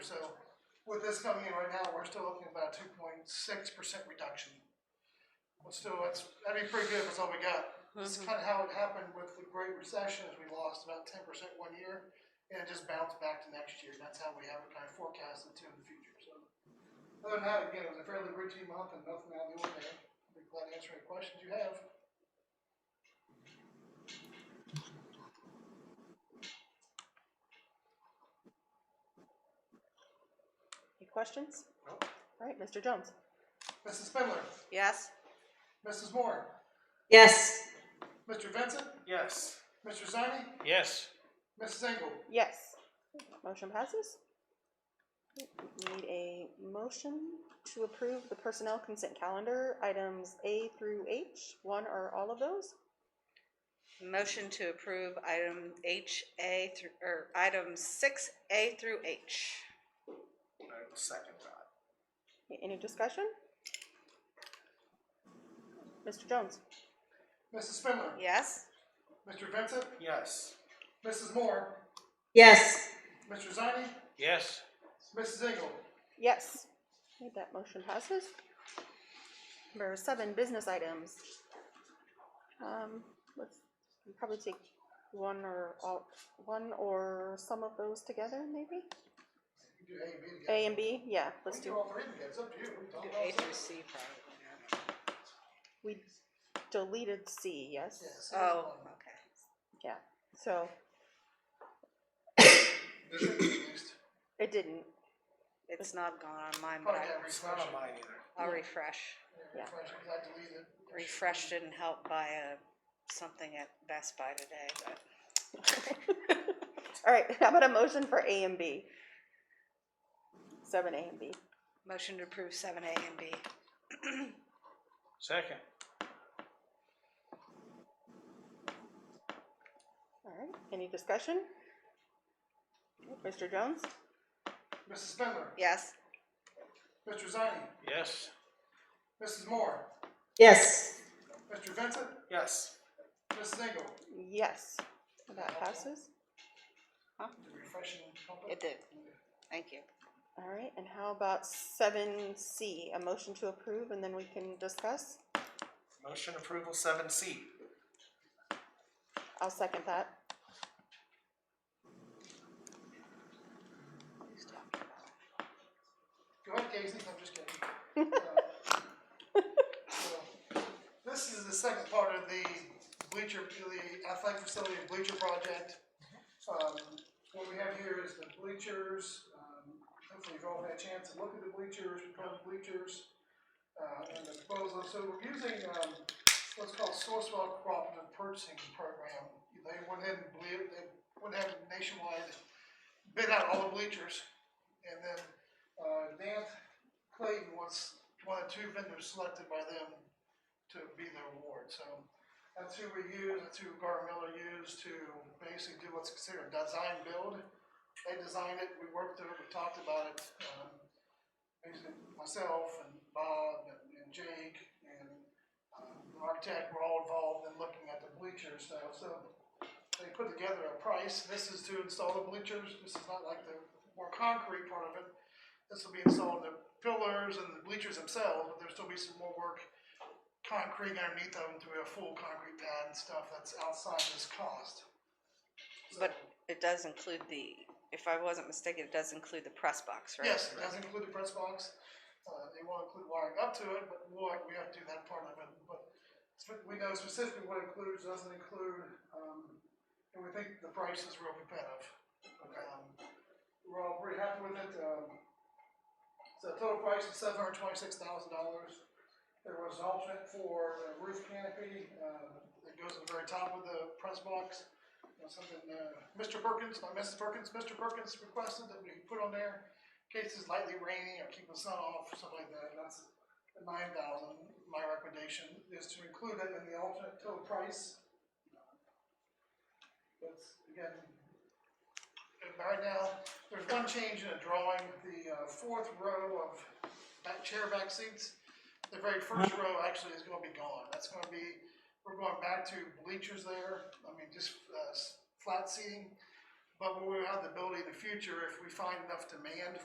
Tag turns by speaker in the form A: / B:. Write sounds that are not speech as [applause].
A: with this coming in right now, we're still looking at about a two point six percent reduction. But still, that's, that'd be pretty good if that's all we got. It's
B: Mhm.
A: kind of how it happened with the Great Recession, is we lost about ten percent one year, and it just bounced back to next year, that's how we have it kind of forecasted to in the future, so. Other than that, again, it was a fairly routine month and nothing out of the ordinary, I'd be glad to answer any questions you have.
B: Any questions?
A: Nope.
B: All right, Mr. Jones?
A: Mrs. Spindler,
B: Yes.
A: Mrs. Moore,
C: Yes.
A: Mr. Vincent,
D: Yes.
A: Mr. Zani,
D: Yes.
A: Mrs. Engel.
B: Yes. Motion passes. Need a motion to approve the personnel consent calendar, items A through H, one or all of those?
C: Motion to approve item H, A through, or item six, A through H.
D: I will second that.
B: Any discussion? Mr. Jones?
A: Mrs. Spindler,
C: Yes?
A: Mr. Vincent,
D: Yes.
A: Mrs. Moore,
C: Yes.
A: Mr. Zani,
D: Yes.
A: Mrs. Engel.
B: Yes. Okay, That motion passes. Number seven, business items. Um, let's we'll probably take one or all, one or some of those together, maybe?
A: You can do A and B together.
B: A and B, yeah,
A: We
B: let's
A: can do
B: do,
A: all three together, it's up to you. We can talk
C: Do
A: about
C: A
A: it.
C: through C probably.
B: we deleted C, yes?
A: Yes.
C: Oh, okay.
B: Yeah, so
A: This is used.
B: it didn't, [laughs]
C: It's not gone on mine, but
A: Probably
C: I-
A: got
D: It's not on
A: refreshed.
D: mine either.
C: I'll refresh.
B: Yeah.
A: Refresh, 'cause I deleted.
C: Refresh didn't help buy a, uh, something at Best Buy today, but
B: all right, [laughs] how about a motion for A and B? Seven A and B.
C: motion to approve seven A and B.
D: Second.
B: All right, any discussion? Mr. Jones?
A: Mrs. Spindler,
C: Yes?
A: Mr. Zani,
D: Yes.
A: Mrs. Moore,
C: Yes.
A: Mr. Vincent,
D: Yes.
A: Mrs. Engel.
B: Yes, that passes.
A: Did refreshing help
C: It
A: it?
C: did. Thank you.
B: All right, and how about seven C, a motion to approve, and then we can discuss?
D: Motion approval seven C.
B: I'll second that.
A: Go ahead, Casey, I'm just kidding. Uh, so, This is the second part of the bleacher, the athletic facility bleacher project. Um, What we have here is the bleachers, um, hopefully you've all had a chance to look at the bleachers, proposed bleachers, uh, and the proposal, so we're using, um, what's called Sourcewell Cooperative Purchasing Program. They went ahead and ble they went ahead and nationwide bid out all the bleachers, and then uh, Dan Clayton was one of two vendors selected by them to be the award, so that's who we use, that's who Gar Miller used to basically do what's considered a design build. They designed it, we worked through it, we talked about it, um, basically myself and Bob and and Jake and, um, the architect were all involved in looking at the bleachers, so, so they put together a price, this is to install the bleachers, this is not like the more concrete part of it. This will be installed, the pillars and the bleachers themselves, but there'll still be some more work, concrete underneath them, to a full concrete pad and stuff that's outside this cost. So-
C: But it does include the, if I wasn't mistaken, it does include the press box, right?
A: Yes, it does include the press box, uh, they won't include wiring up to it, but we'll, we have to do that part of it, but spe- we know specifically what includes, doesn't include, um, and we think the price is real competitive. Um, We're all pretty happy with it, um, so total price is seven hundred twenty-six thousand dollars. There was an alternate for a roof canopy, uh, that goes at the very top of the press box. You know, Something, uh, Mr. Perkins, not Mrs. Perkins, Mr. Perkins requested that we put on there in case it's lightly raining or keep the sun off or something like that. That's nine thousand. My recommendation is to include it in the alternate total price. That's, again, and right now, there's one change in a drawing, the uh, fourth row of back chair back seats. The very first row actually is gonna be gone. That's gonna be, we're going back to bleachers there, I mean, just, uh, s- flat seating. But we will have the ability in the future, if we find enough demand